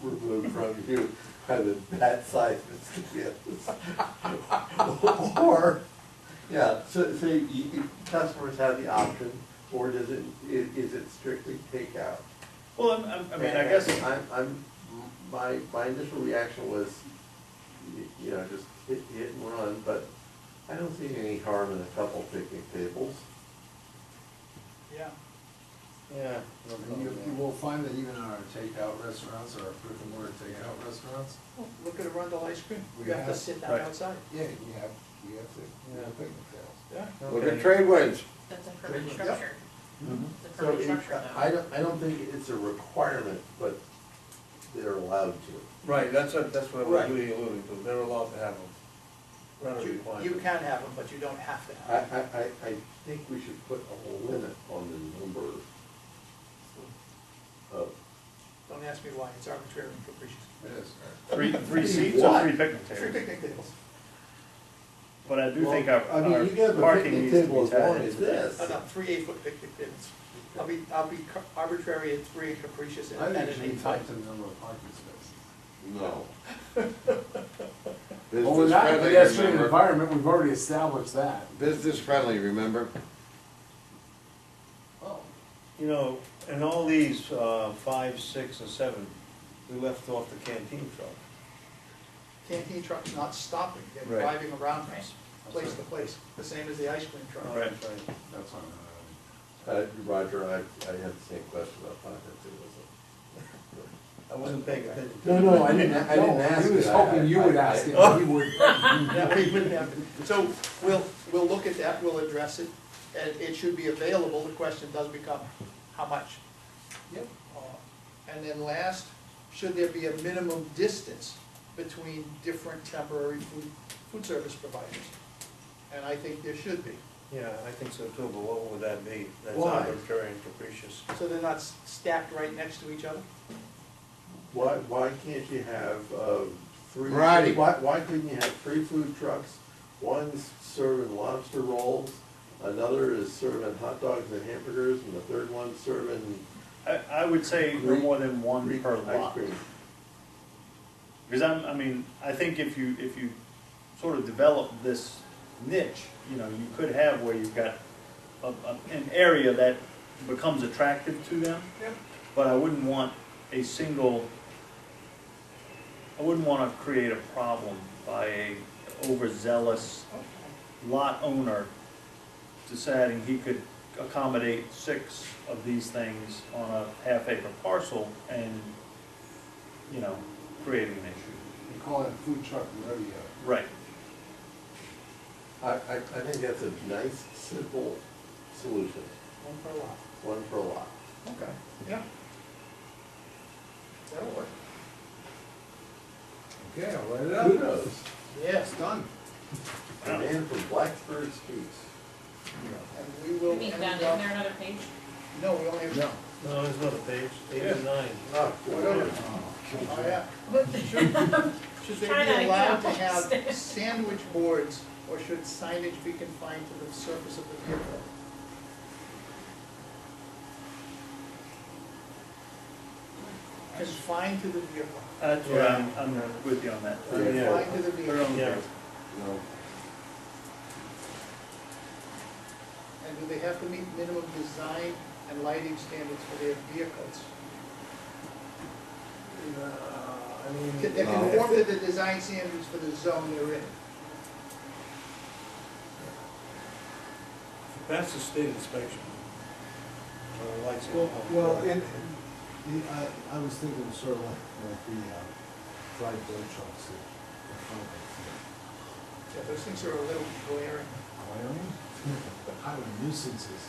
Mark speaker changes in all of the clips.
Speaker 1: from you are the bad side, Mr. Gifts. Or, yeah, so, so you- you- customers have the option, or does it, i- is it strictly takeout?
Speaker 2: Well, I'm, I'm, I mean, I guess,
Speaker 1: And I'm, I'm, my, my initial reaction was, y- you know, just hit, hit and run, but I don't see any harm in a couple picnic tables.
Speaker 2: yeah.
Speaker 3: Yeah.
Speaker 4: And You, you will find that even our takeout restaurants, our brick and mortar takeout restaurants,
Speaker 2: Well, Look at Arundel Ice Cream, you
Speaker 4: Yeah.
Speaker 2: have to sit down
Speaker 3: Right.
Speaker 2: outside,
Speaker 4: yeah, you have, you have to, you have picnic tables.
Speaker 2: yeah.
Speaker 3: Look at
Speaker 1: Tradeways.
Speaker 5: That's a permanent
Speaker 4: Yep.
Speaker 5: structure. It's a
Speaker 1: Mm-hmm. So
Speaker 5: permanent
Speaker 1: it-
Speaker 5: structure
Speaker 1: I
Speaker 5: though.
Speaker 1: don't, I don't think it's a requirement, but they're allowed to.
Speaker 3: Right, that's what, that's what
Speaker 2: Right.
Speaker 3: we're really alluding to, they're allowed to have them. Not a
Speaker 2: You,
Speaker 3: requirement.
Speaker 2: you can have them, but you don't have to
Speaker 1: I,
Speaker 2: have them.
Speaker 1: I, I, I think we should put a limit on the number of.
Speaker 2: Don't ask me why, it's arbitrary and capricious.
Speaker 4: It is.
Speaker 6: Three, three seats or three picnic
Speaker 2: Three
Speaker 6: tables?
Speaker 2: picnic tables.
Speaker 6: But I do think our,
Speaker 1: Well, I mean,
Speaker 6: our
Speaker 1: you can have a
Speaker 6: parking
Speaker 1: picnic
Speaker 6: needs to
Speaker 1: table
Speaker 6: be
Speaker 1: as long
Speaker 6: tied
Speaker 1: as
Speaker 6: into
Speaker 1: this.
Speaker 2: Oh, no, three eight-foot picnic tables. I'll be, I'll be ca- arbitrary and free and capricious and
Speaker 4: I
Speaker 2: at
Speaker 4: think
Speaker 2: an
Speaker 4: you should
Speaker 2: eight
Speaker 4: talk
Speaker 2: time.
Speaker 4: to the number of parking spaces.
Speaker 7: No.
Speaker 4: Well, we're
Speaker 7: Business
Speaker 4: not in a
Speaker 7: friendly,
Speaker 4: pedestrian
Speaker 7: remember?
Speaker 4: environment, we've already established that.
Speaker 7: Business friendly, remember?
Speaker 4: Oh,
Speaker 3: You know, in all these, uh, five, six, and seven, we left off the canteen truck.
Speaker 2: Canteen truck's not stopping, they're
Speaker 3: Right.
Speaker 2: driving around from place
Speaker 4: That's
Speaker 2: to place, the same as the ice cream truck.
Speaker 3: Right.
Speaker 4: that's on, uh,
Speaker 1: Uh, Roger, I, I had the same question about five and two, was it?
Speaker 3: I wasn't paying attention.
Speaker 1: No, no, I didn't, I didn't
Speaker 4: No,
Speaker 1: ask it.
Speaker 4: He was
Speaker 1: I-
Speaker 4: hoping you
Speaker 1: I-
Speaker 4: would
Speaker 1: I-
Speaker 4: ask it, and he would.
Speaker 2: Yeah, we wouldn't have to. So we'll, we'll look at that, we'll address it, and it should be available. The question does become, how much?
Speaker 4: Yep.
Speaker 2: Uh, And then last, should there be a minimum distance between different temporary food, food service providers? And I think there should be,
Speaker 3: Yeah, I think so too, but what would that be? That's
Speaker 2: Why?
Speaker 3: arbitrary and capricious.
Speaker 2: so they're not s- stacked right next to each other?
Speaker 1: Why, why can't you have, uh, three?
Speaker 7: Variety.
Speaker 1: Why, why couldn't you have three food trucks? One's serving lobster rolls, another is serving hot dogs and hamburgers, and the third one's serving
Speaker 6: I, I would say no
Speaker 1: Greek-
Speaker 6: more than one
Speaker 1: Greek
Speaker 6: per
Speaker 1: ice
Speaker 6: lot.
Speaker 1: cream.
Speaker 6: Because I'm, I mean, I think if you, if you sort of develop this niche, you know, you could have where you've got a, a, an area that becomes attractive to them.
Speaker 2: Yep.
Speaker 6: But I wouldn't want a single, I wouldn't wanna create a problem by a overzealous lot owner deciding he could accommodate six of these things on a half acre parcel and, you know, creating an issue.
Speaker 4: They call it a food truck rodeo.
Speaker 6: Right.
Speaker 1: I, I, I think that's a nice, simple solution,
Speaker 2: One per lot.
Speaker 1: one per lot.
Speaker 2: Okay. Yeah. That'll work.
Speaker 4: Okay, I'll write it up.
Speaker 1: Kudos,
Speaker 2: Yes, done.
Speaker 1: the man from Blacksburg speaks.
Speaker 2: And we will.
Speaker 5: You mean
Speaker 2: and
Speaker 5: down,
Speaker 2: we'll-
Speaker 5: isn't there another page?
Speaker 2: No, we only have. No.
Speaker 3: No, there's another page, eight and nine.
Speaker 1: Oh,
Speaker 2: Whatever. Oh, yeah. Should- Should
Speaker 5: Try
Speaker 2: they
Speaker 5: that
Speaker 2: be allowed to
Speaker 5: again.
Speaker 2: have sandwich boards, or should signage be confined to the surface of the vehicle? Confined to the vehicle.
Speaker 6: That's what I'm, I'm with you on that.
Speaker 2: Confined to the vehicle.
Speaker 6: Yeah.
Speaker 7: No.
Speaker 2: And do they have to meet minimum design and lighting standards for their vehicles?
Speaker 4: Uh, I
Speaker 2: Can they
Speaker 4: mean,
Speaker 7: No.
Speaker 2: conform to the design standards for the zone they're in?
Speaker 3: That's the state inspection. Uh, lights.
Speaker 4: well, well, and, and the, I, I was thinking sort of like, like the, uh, fried dough trucks that are front of
Speaker 2: Yeah, those things are a little glaring.
Speaker 4: the highway nuisances.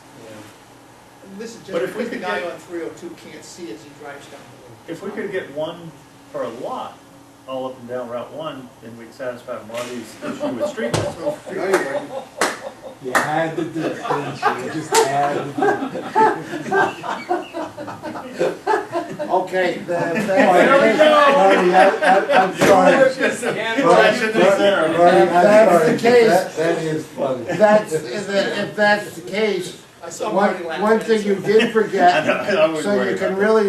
Speaker 2: And This is just
Speaker 6: But if we
Speaker 2: because the
Speaker 6: could
Speaker 2: guy
Speaker 6: get-
Speaker 2: on three oh two can't see as he drives down the road.
Speaker 6: If we could get one per lot, all up and down Route One, then we'd satisfy Marty's issue with street lights.
Speaker 4: You had to do it, didn't you? You just had to do it.
Speaker 7: Okay,
Speaker 1: That-
Speaker 4: Oh,
Speaker 1: that's- Marty, I- I- I'm sorry. Marty, I'm
Speaker 7: That's
Speaker 1: sorry.
Speaker 7: the case.
Speaker 1: That- That is funny.
Speaker 7: that's, if that- if that's the case,
Speaker 2: I saw
Speaker 7: one,
Speaker 2: Marty laughing.
Speaker 7: one thing you did
Speaker 6: I know,
Speaker 7: forget,
Speaker 6: I wasn't
Speaker 7: so
Speaker 6: worried
Speaker 7: you
Speaker 6: about
Speaker 7: can
Speaker 6: that.
Speaker 7: really